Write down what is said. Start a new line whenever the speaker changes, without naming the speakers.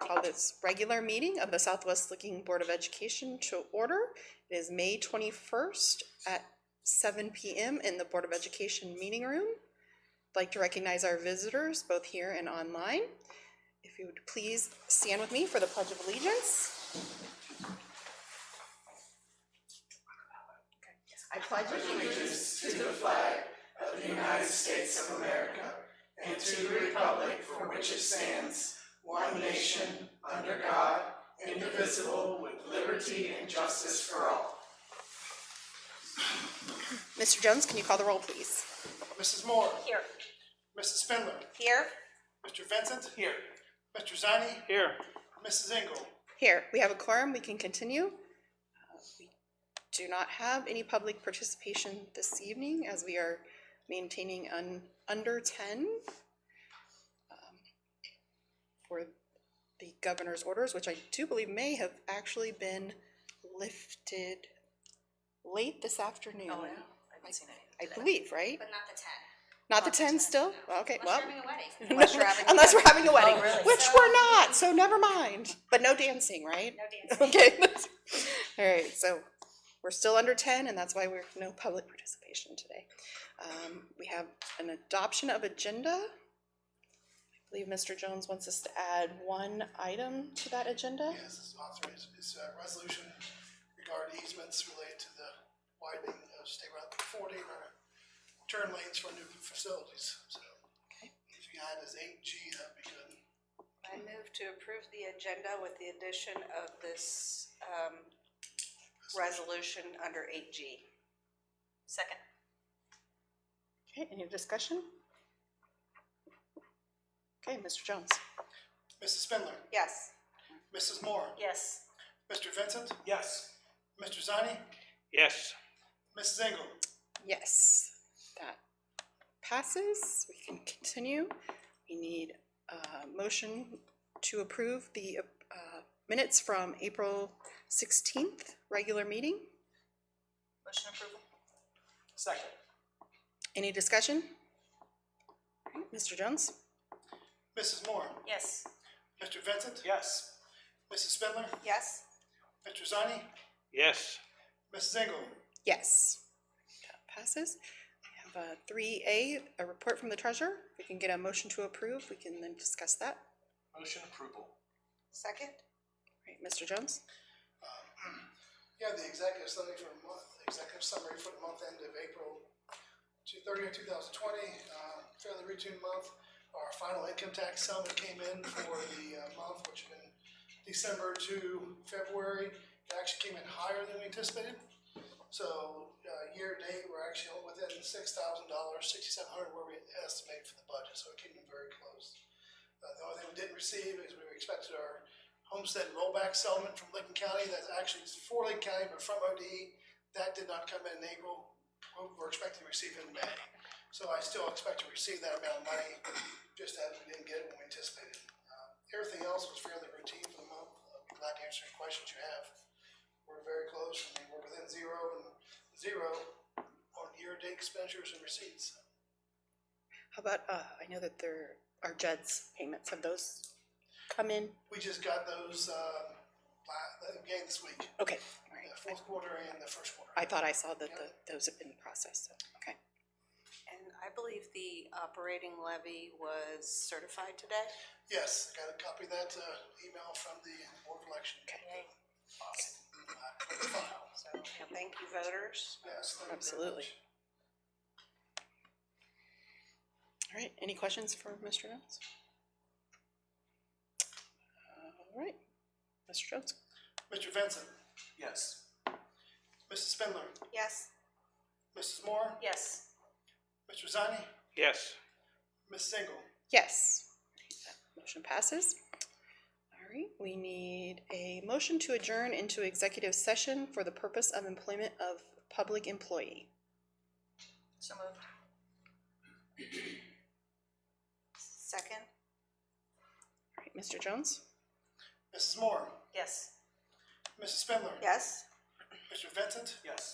call this regular meeting of the Southwest Looking Board of Education to order. It is May twenty-first at seven PM in the Board of Education meeting room. I'd Like to recognize our visitors, both here and online. If you would please stand with me for the Pledge of Allegiance. I pledge Mr. Jones, can you call the roll, please?
Mrs. Moore.
Here.
Mrs. Spindler.
Here?
Mr. Vincent. Here. Mr. Zani.
Here.
Mrs. Engel.
Here, we have a quorum, we can continue. Uh, we Do not have any public participation this evening as we are maintaining un, under ten um, for the governor's orders, which I do believe may have actually been lifted late this afternoon.
Oh, yeah. I haven't seen
I
any.
believe, right?
But not the ten.
Not the ten still? Well, Okay, well.
Unless you're having a wedding.
Unless we're having a wedding,
really?
which
So-
we're not, so never mind. But no dancing, right?
No dancing.
Okay. All right, so we're still under ten, and that's why we're no public participation today. Um, we have an adoption of agenda. I believe Mr. Jones wants us to add one item to that agenda.
Yes, it's authorized, it's a uh, resolution regarding easements related to the widening of State Route forty or turn lanes for new facilities, so. If you had as eight G, that'd be good.
I move to approve the agenda with the addition of this um, resolution under eight G.
Second.
Okay, any discussion? Okay, Mr. Jones.
Mrs. Spindler.
Yes,
Mrs. Moore.
Yes.
Mr. Vincent.
Yes.
Mr. Zani.
Yes.
Mrs. Engel.
Yes, that passes. We can continue. We need a motion to approve the uh, minutes from April sixteenth, regular meeting.
Motion approval?
Second.
Any discussion? Alright, Mr. Jones?
Mrs. Moore.
Yes.
Mr. Vincent.
Yes.
Mrs. Spindler.
yes,
Mr. Zani.
Yes.
Mrs. Engel.
Yes. That Passes. We have three A, a report from the treasurer. We can get a motion to approve. We can then discuss that.
Motion approval.
second,
Right, Mr. Jones?
Yeah, the executive summary for the month, executive summary for the month end of April two thirty of two thousand twenty, uh, fairly routine month. Our final income tax settlement came in for the uh, month, which had been December to February. It actually came in higher than we anticipated. So, uh, year to date, we're actually within six thousand dollars, sixty-seven hundred where we estimate for the budget, so it came in very close. Uh, the only thing we didn't receive is we expected our homestead rollback settlement from Lincoln County, that's actually for Lincoln County, but from ODE. That did not come in in April, We're- we're expecting to receive it in May. So I still expect to receive that amount of money, just as we didn't get it when we anticipated. Uh, Everything else was fairly routine for the month, I'll be glad to answer any questions you have. We're very close, I mean, we're within zero and zero on year-to-date expenditures and receipts.
How about, uh, I know that there are JED's payments. Have those come in?
We just got those, uh, la- again this week,
Okay,
the
alright.
fourth quarter and the first quarter.
I thought I saw that the, those have been processed, so, okay.
and I believe the operating levy was certified today.
Yes, I got a copy of that, uh, email from the board of election.
Okay.
So thank you voters.
Yes, thank you very
Absolutely.
much.
All right, any questions for Mr. Jones? All right, Mr. Jones?
Mr. Vincent,
Yes.
Mrs. Spindler,
Yes,
Mrs. Moore,
Yes.
Mr. Zani,
Yes.
Mrs. Engel.
Yes. That Motion passes. All right, we need a motion to adjourn into executive session for the purpose of employment of public employee.
So moved.
second,
All right, Mr. Jones?
Mrs. Moore,
Yes.
Mrs. Spindler.
yes.
Mr. Vincent,
Yes.